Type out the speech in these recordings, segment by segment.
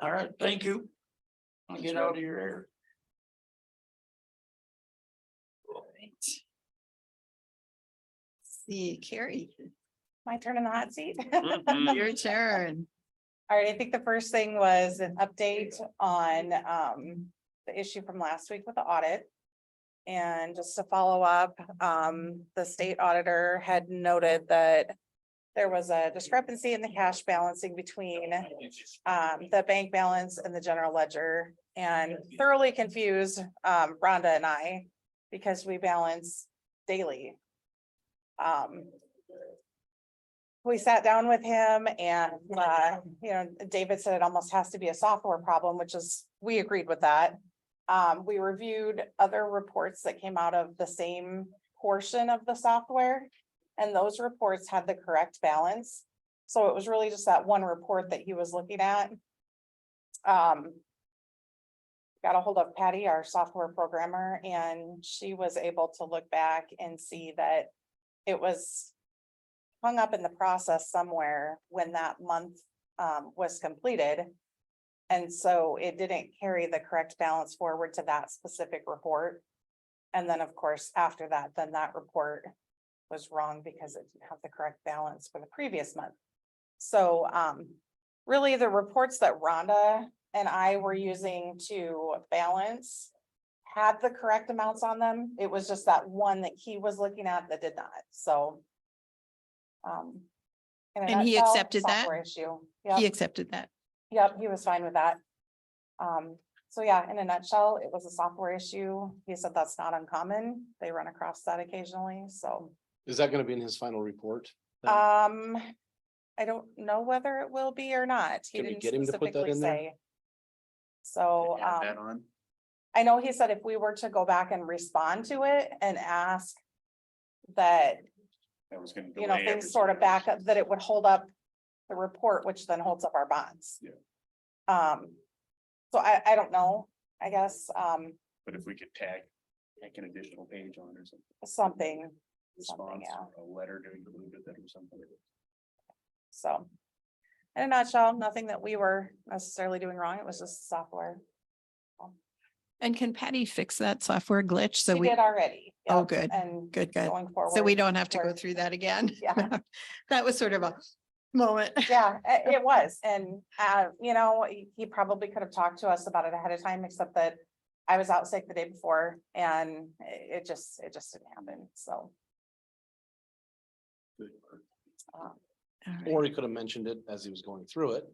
All right, thank you. I'll get out of your hair. Alright. See, Carrie, My turn in the hot seat. Mhm. your turn. All right, I think the first thing was an update on um the issue from last week with the audit. And just to follow up, um, the state auditor had noted that there was a discrepancy in the cash balancing between um the bank balance and the general ledger and thoroughly confused um Rhonda and I because we balance daily. Um, we sat down with him and, uh, you know, David said it almost has to be a software problem, which is, we agreed with that. Um, we reviewed other reports that came out of the same portion of the software. And those reports had the correct balance. So it was really just that one report that he was looking at. Um. Got a hold of Patty, our software programmer, and she was able to look back and see that it was hung up in the process somewhere when that month um was completed. And so it didn't carry the correct balance forward to that specific report. And then, of course, after that, then that report was wrong because it didn't have the correct balance for the previous month. So um really the reports that Rhonda and I were using to balance had the correct amounts on them. It was just that one that he was looking at that did not, so. um, in a And he nutshell, accepted that? software Issue. He Yep, accepted that. yep, he was fine with that. Um, so yeah, in a nutshell, it was a software issue. He said that's not uncommon. They run across that occasionally, so. Is that gonna be in his final report? then? Um, I don't know whether it will be or not. He Can we didn't get him to put that specifically in there? say. So, Add that um, on. I know he said if we were to go back and respond to it and ask that, That was gonna you know, delay things sort of everything. back up, that it would hold up the report, which then holds up our bonds. Yeah. Um, so I, I don't know, I guess, um, But if we could tag, like an additional page on or something, something, response, yeah. or a letter to include it or something. so. In a nutshell, nothing that we were necessarily doing wrong. It was just software. And can Patty fix that software glitch? So We we, did already. Oh, yep, good, And. good, good. Going forward. So we don't have to go we're- through that again. Yeah. That was sort of a moment. Yeah, i- it was. And, uh, you know, he- he probably could have talked to us about it ahead of time, except that I was out sick the day before and i- it just, it just didn't happen. So, uh, All right. Or he could have mentioned it as he was going through it.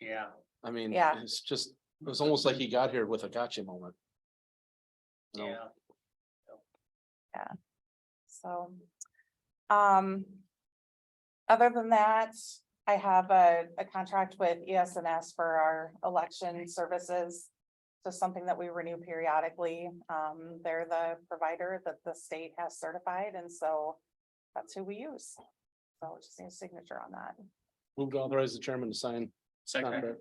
Yeah. I mean, Yeah. it's just, it was almost like he got here with a gotcha moment. You know, so. Um. Other than that, I have a, a contract with E ESNS for our election services. So something that we renew periodically. Um, they're the provider that the state has certified and so that's who we use. So just need a signature on that. Move to authorize the chairman to sign. Second, contract.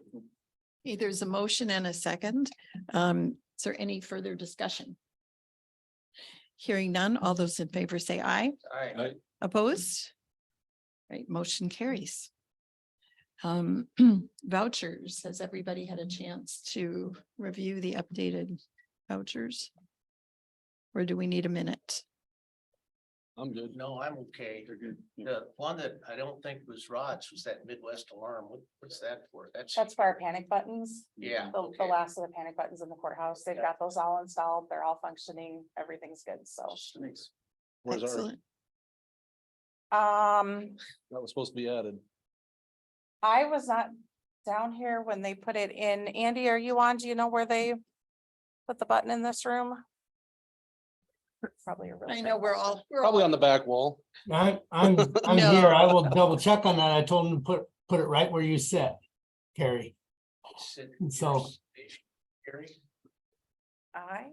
Okay, There's a motion and a second. Um, is there any further discussion? Hearing none, all those in favor say aye. alright, Opposed? Right, motion carries. Um, vouchers, has everybody had a chance to review the updated vouchers? Or do we need a minute? I'm good. No, I'm okay. they're good. Yeah. The one that I don't think was Rod's was that Midwest alarm. What, what's that for? That's, That's for our panic buttons, yeah. the, the okay. last of the panic buttons in the courthouse. They've Yeah. got those all installed. They're all functioning. Everything's good. So, Thanks. Where's our, Excellent. um, that was supposed to be added. I was not down here when they put it in. Andy, are you on? Do you know where they put the button in this room? Probably. a real I trick know we're question. all, we're all, Probably on the back wall. I, I'm, I'm No. here. I will double check on that. I told him to put, put it right where you said, Carrie. Sit- So- Gary? I,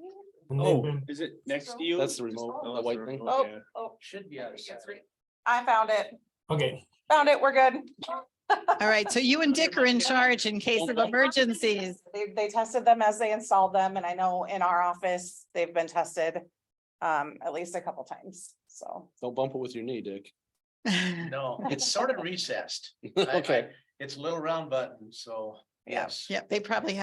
And they've been- is it next to you? That's the remote, the white thing. oh, Oh, should be out of sight. I found it. Okay, Found it. We're good. all right, so you and Dick are in charge in case of emergencies. They, they tested them as they installed them and I know in our office, they've been tested um, at least a couple times. So, Don't bump it with your knee, Dick. No, it's sort of recessed. I- I- Okay, It's a little round button, so Yeah. Yes. Yeah, they probably have